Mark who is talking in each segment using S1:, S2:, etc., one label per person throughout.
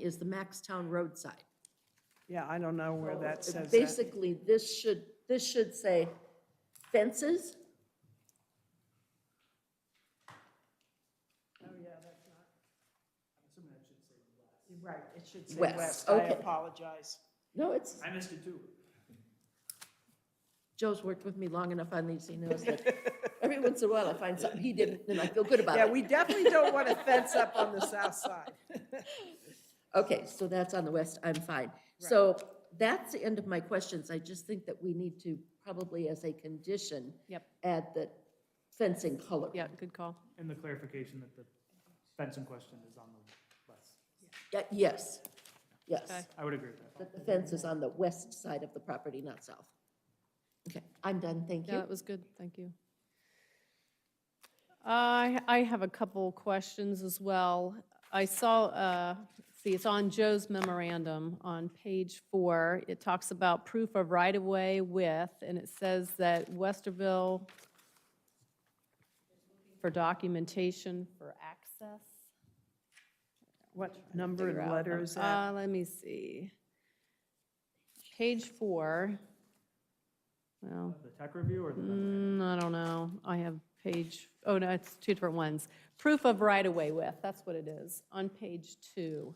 S1: is the Maxtown roadside.
S2: Yeah, I don't know where that says that.
S1: Basically, this should, this should say fences.
S2: Right, it should
S1: West,
S2: I
S1: okay.
S2: apologize.
S1: No, it's,
S3: I missed it too.
S1: Joe's worked with me long enough on these, he knows that every once in a while I find something he didn't, and I feel good about
S2: Yeah,
S1: it.
S2: we definitely don't want a fence up on the south side.
S1: Okay, so that's on the west, I'm fine. So that's the end of my questions. I just think that we need to probably as a condition.
S4: Yep.
S1: Add the fencing color.
S4: Yeah, good call.
S3: And the clarification that the fence in question is on the west.
S1: Yeah, Yes,
S4: Okay.
S1: yes.
S3: I would agree with that.
S1: That the fence is on the west side of the property, not south. Okay, I'm done, thank
S4: Yeah,
S1: you.
S4: that was good, thank you. I, I have a couple questions as well. I saw, uh, see, it's on Joe's memorandum on page four. It talks about proof of right-of-way with, and it says that Westerville for documentation for access.
S2: What number
S4: figure
S2: and
S4: out.
S2: letter is that?
S4: Uh, let me see. Page four. Well.
S3: The tech review or the,
S4: Mm, I don't know. I have page, oh, no, it's two different ones. Proof of right-of-way with, that's what it is, on page two.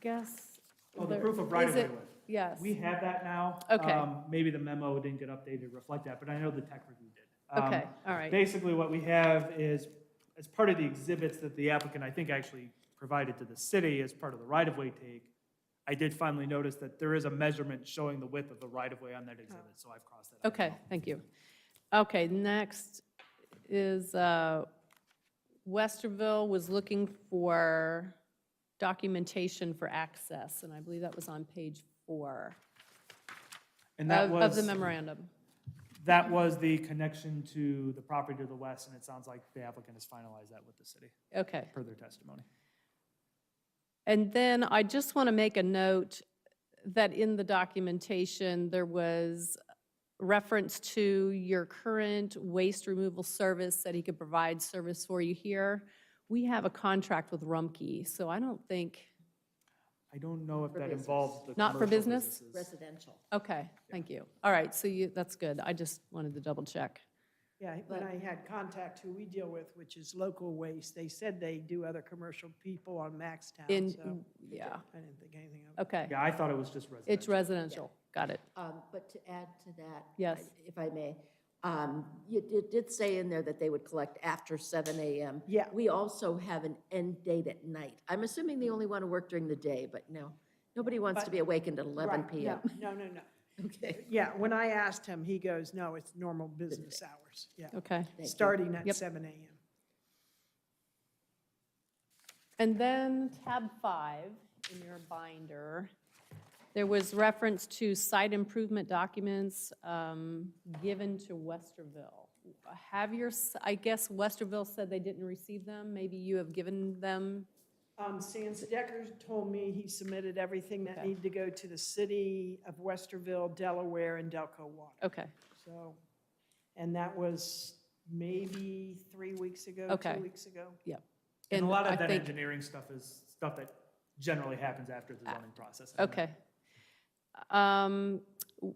S4: Guess.
S3: oh, the
S4: there-
S3: proof of
S4: is
S3: right of way.
S4: it- Yes.
S3: We have that now.
S4: Okay.
S3: Um, Maybe the memo didn't get updated to reflect that, but I know the tech review did. Um,
S4: Okay, all right.
S3: Basically, what we have is, as part of the exhibits that the applicant, I think, actually provided to the city as part of the right-of-way take, I did finally notice that there is a measurement showing the width of the right-of-way on that exhibit, so I've crossed that out.
S4: Oh. Okay, thank you. Okay, next is, uh, Westerville was looking for documentation for access, and I believe that was on page four
S3: And that
S4: of
S3: was.
S4: of the memorandum.
S3: That was the connection to the property to the west, and it sounds like the applicant has finalized that with the city,
S4: Okay.
S3: per their testimony.
S4: And then I just want to make a note that in the documentation, there was reference to your current waste removal service that he could provide service for you here. We have a contract with Rumpke, so I don't think,
S3: I don't know if
S1: For
S3: that
S1: business.
S3: involves the.
S4: Not for
S3: commercial
S4: business?
S3: businesses.
S1: Residential.
S4: okay, thank you. All right, so you, that's good. I just wanted to double check.
S2: Yeah, when I had contact who we deal with, which is local waste, they said they do other commercial people on Maxtown,
S4: In,
S2: so
S4: yeah,
S2: I didn't think anything of it.
S4: okay.
S3: Yeah, I thought it was just residential.
S4: It's residential, got it.
S1: Um, But to add to that.
S4: Yes.
S1: I- If I may, um, you did- did say in there that they would collect after seven AM.
S2: Yeah.
S1: We also have an end date at night. I'm assuming they only want to work during the day, but no, nobody wants to
S2: But-
S1: be awakened at eleven
S2: Right,
S1: PM.
S2: No, no, no, no.
S1: Okay,
S2: Yeah, when I asked him, he goes, no, it's normal business hours, yeah,
S4: Okay.
S1: thank you.
S2: starting at
S4: Yep.
S2: seven AM.
S4: And then tab five in your binder, there was reference to site improvement documents um, given to Westerville. Have your, s- I guess Westerville said they didn't receive them, maybe you have given them,
S2: Um, Sam Stecker told me he submitted everything that
S4: Okay.
S2: needed to go to the city of Westerville, Delaware, and Delco Water,
S4: okay,
S2: so. And that was maybe three weeks ago,
S4: Okay.
S2: two weeks ago.
S3: And a lot
S4: I
S3: of that
S4: think-
S3: engineering stuff is stuff that generally happens after the zoning process. I mean,
S4: Uh, Okay. Um, w-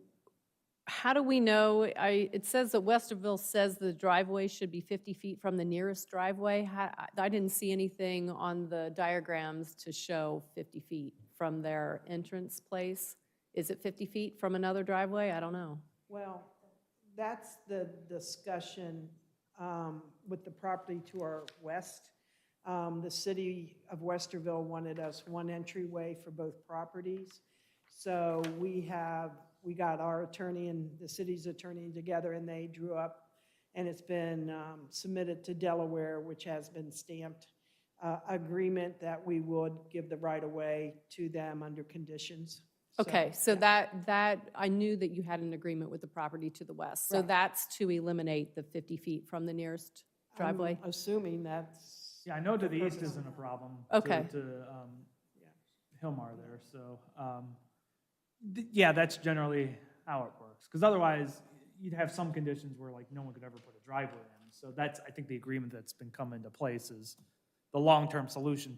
S4: How do we know, I, it says that Westerville says the driveway should be 50 feet from the nearest driveway. How- I I didn't see anything on the diagrams to show 50 feet from their entrance place. Is it 50 feet from another driveway? I don't know.
S2: Well, that's the discussion um, with the property to our west. Um, The city of Westerville wanted us one entryway for both properties. So we have, we got our attorney and the city's attorney together, and they drew up, and it's been um, submitted to Delaware, which has been stamped, uh, agreement that we would give the right-of-way to them under conditions. So,
S4: Okay, so
S2: yeah.
S4: that, that, I knew that you had an agreement with the property to the west. So
S2: Right.
S4: that's to eliminate the 50 feet from the nearest driveway?
S2: I'm assuming that's.
S3: Yeah, I know to the east
S2: purpose.
S3: isn't a problem. to-
S4: Okay.
S3: To, um,
S2: Yeah.
S3: Hillmar there, so, um, th- yeah, that's generally how it works. Because otherwise, you'd have some conditions where like no one could ever put a driveway in. So that's, I think, the agreement that's been come into place is the long-term solution